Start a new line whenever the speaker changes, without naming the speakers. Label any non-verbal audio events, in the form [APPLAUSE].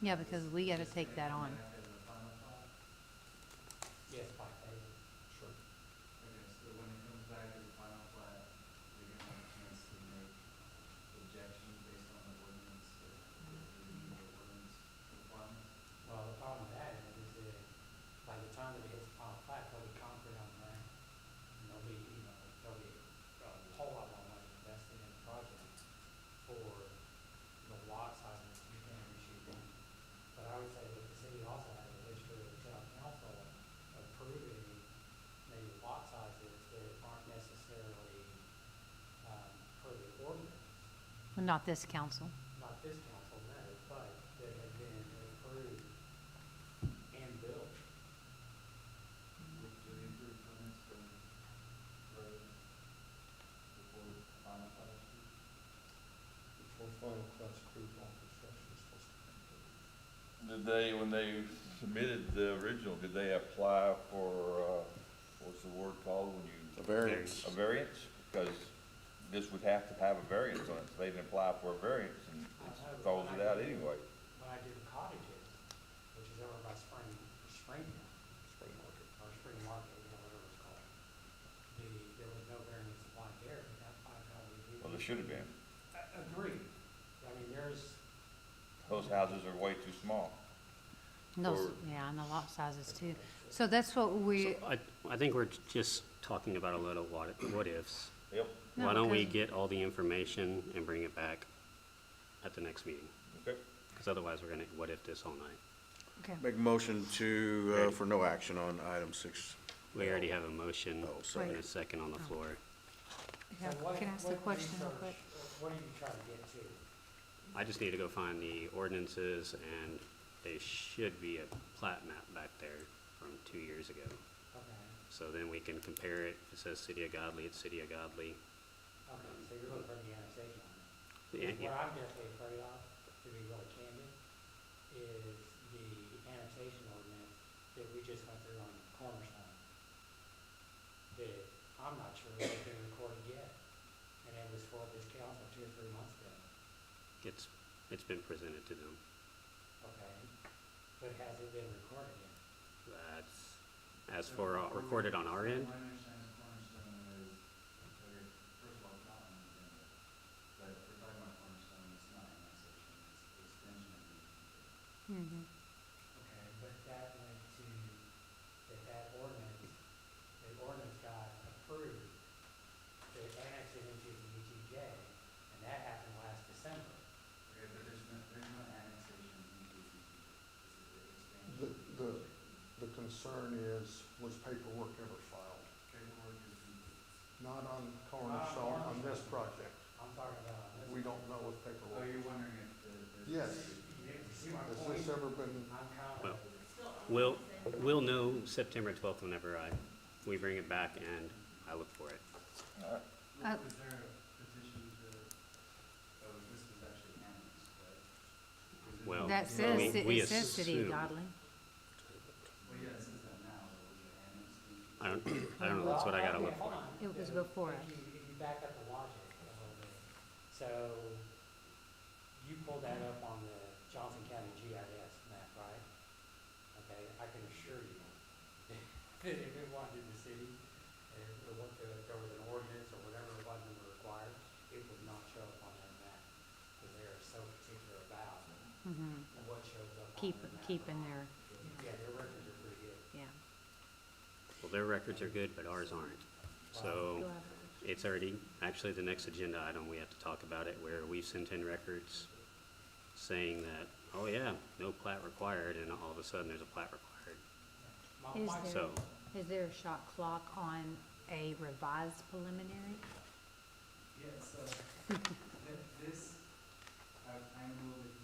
Yeah, because we gotta take that on.
Yes, by favor. Sure.
Okay, so when it comes back to the final plat, we're gonna have a chance to make objections based on the ordinance, the, the ordinance requirements.
Well, the problem with that is, is that by the time that it hits final plat, there'll be concrete on the ground. And there'll be, you know, there'll be a whole lot more money invested in the project for the lot sizes you can issue them. But I would say that the city also has a history of the town council approving maybe lot sizes that aren't necessarily, um, per the ordinance.
Well, Not this council.
not this council, no, but that have been approved and built.
Do the improved permits for roads before the final plat? is due?
Before final cuts approved on construction is supposed to be completed.
Did they, when they submitted the original, did they apply for, uh, what's the word called when you?
A variance.
A variance? Because this would have to have a variance on it. So They didn't apply for a variance and it throws it out anyway.
When I did the cottages, which is over by Spring, Spring,
Spring market.
or Spring Market, you know, whatever it's called. The, there was no variance applied there, but that, I thought we did.
Well, there should have been.
A- Agreed. I mean, there's,
Those houses are way too small.
And those,
Or-
yeah, and the lot sizes too. So that's what we,
So I, I think we're just talking about a lot of what, what ifs.
Yep,
No,
Why don't we
because-
get all the information and bring it back at the next meeting?
okay.
Because otherwise, we're gonna what if this all night.
okay,
Make a motion to, uh, for no action on item six.
We already have a motion
Oh, sorry.
and a second on the floor.
so
okay,
what,
can I ask the
what
question real
research-
quick?
What are you trying to get to?
I just need to go find the ordinances, and they should be a plat map back there from two years ago.
Okay,
So then we can compare it. If it says City of Godly, it's City of Godly.
okay, so you're looking for the annexation on it.
Yeah,
What
yeah.
I'm definitely afraid of, to be really candid, is the annexation ordinance that we just went through on Cornerstone. That I'm not sure if it's been recorded yet, and it was for this council two or three months ago,
It's, it's been presented to them.
okay? But has it been recorded yet?
That's, as for uh, recorded on our end,
My understanding is cornerstone is, okay, first of all, it's not on the agenda, but if we're talking about cornerstone, it's not annexation, it's extension of the.
Mhm.
Okay, but that went to, that that ordinance, the ordinance got approved, they annexed it into the UTJ, and that happened last December.
Okay, but there's no, there's no annexation into the, it's expansion.
The, the, the concern is, was paperwork ever filed?
Paperwork is complete.
Not on Cornerstone, on this project.
I'm talking about on this.
We don't know if
Oh,
paperwork,
you're wondering if the, the.
Yes.
You didn't see my
has
point?
this ever been,
I'm kind of,
Well, we'll, we'll know September twelfth whenever I, we bring it back and I look for it.
All right.
Uh,
Was was there a petition to, oh, this was actually annexed, right? Was it-
Well,
That
we-
says, ci-
Oh, we
it says City of
assume-
Godly.
Well, yeah, it says that now, but was it annexed into?
I don't, I don't know, that's what I gotta look for.
It was before
If
us.
you, if you back up the logic a little bit, so you pulled that up on the Johnson County GIS map, right? Okay, I can assure you [LAUGHS] that if it wasn't in the city, and it wa- if there was an ordinance or whatever it was that were required, it would not show up on their map, because they are so particular about
Mhm.
what shows up on
Keep,
their map.
keep in there,
Yeah, their records are pretty good.
yeah.
Well, their records are good, but ours aren't. So
Go ahead.
it's already, actually, the next agenda item, we have to talk about it where we sent in records saying that, oh yeah, no plat required, and all of a sudden there's a plat required.
My,
Is
my
there,
So-
is there a shot clock on a revised preliminary?
Yeah, so, th- this, I, I'm a little bit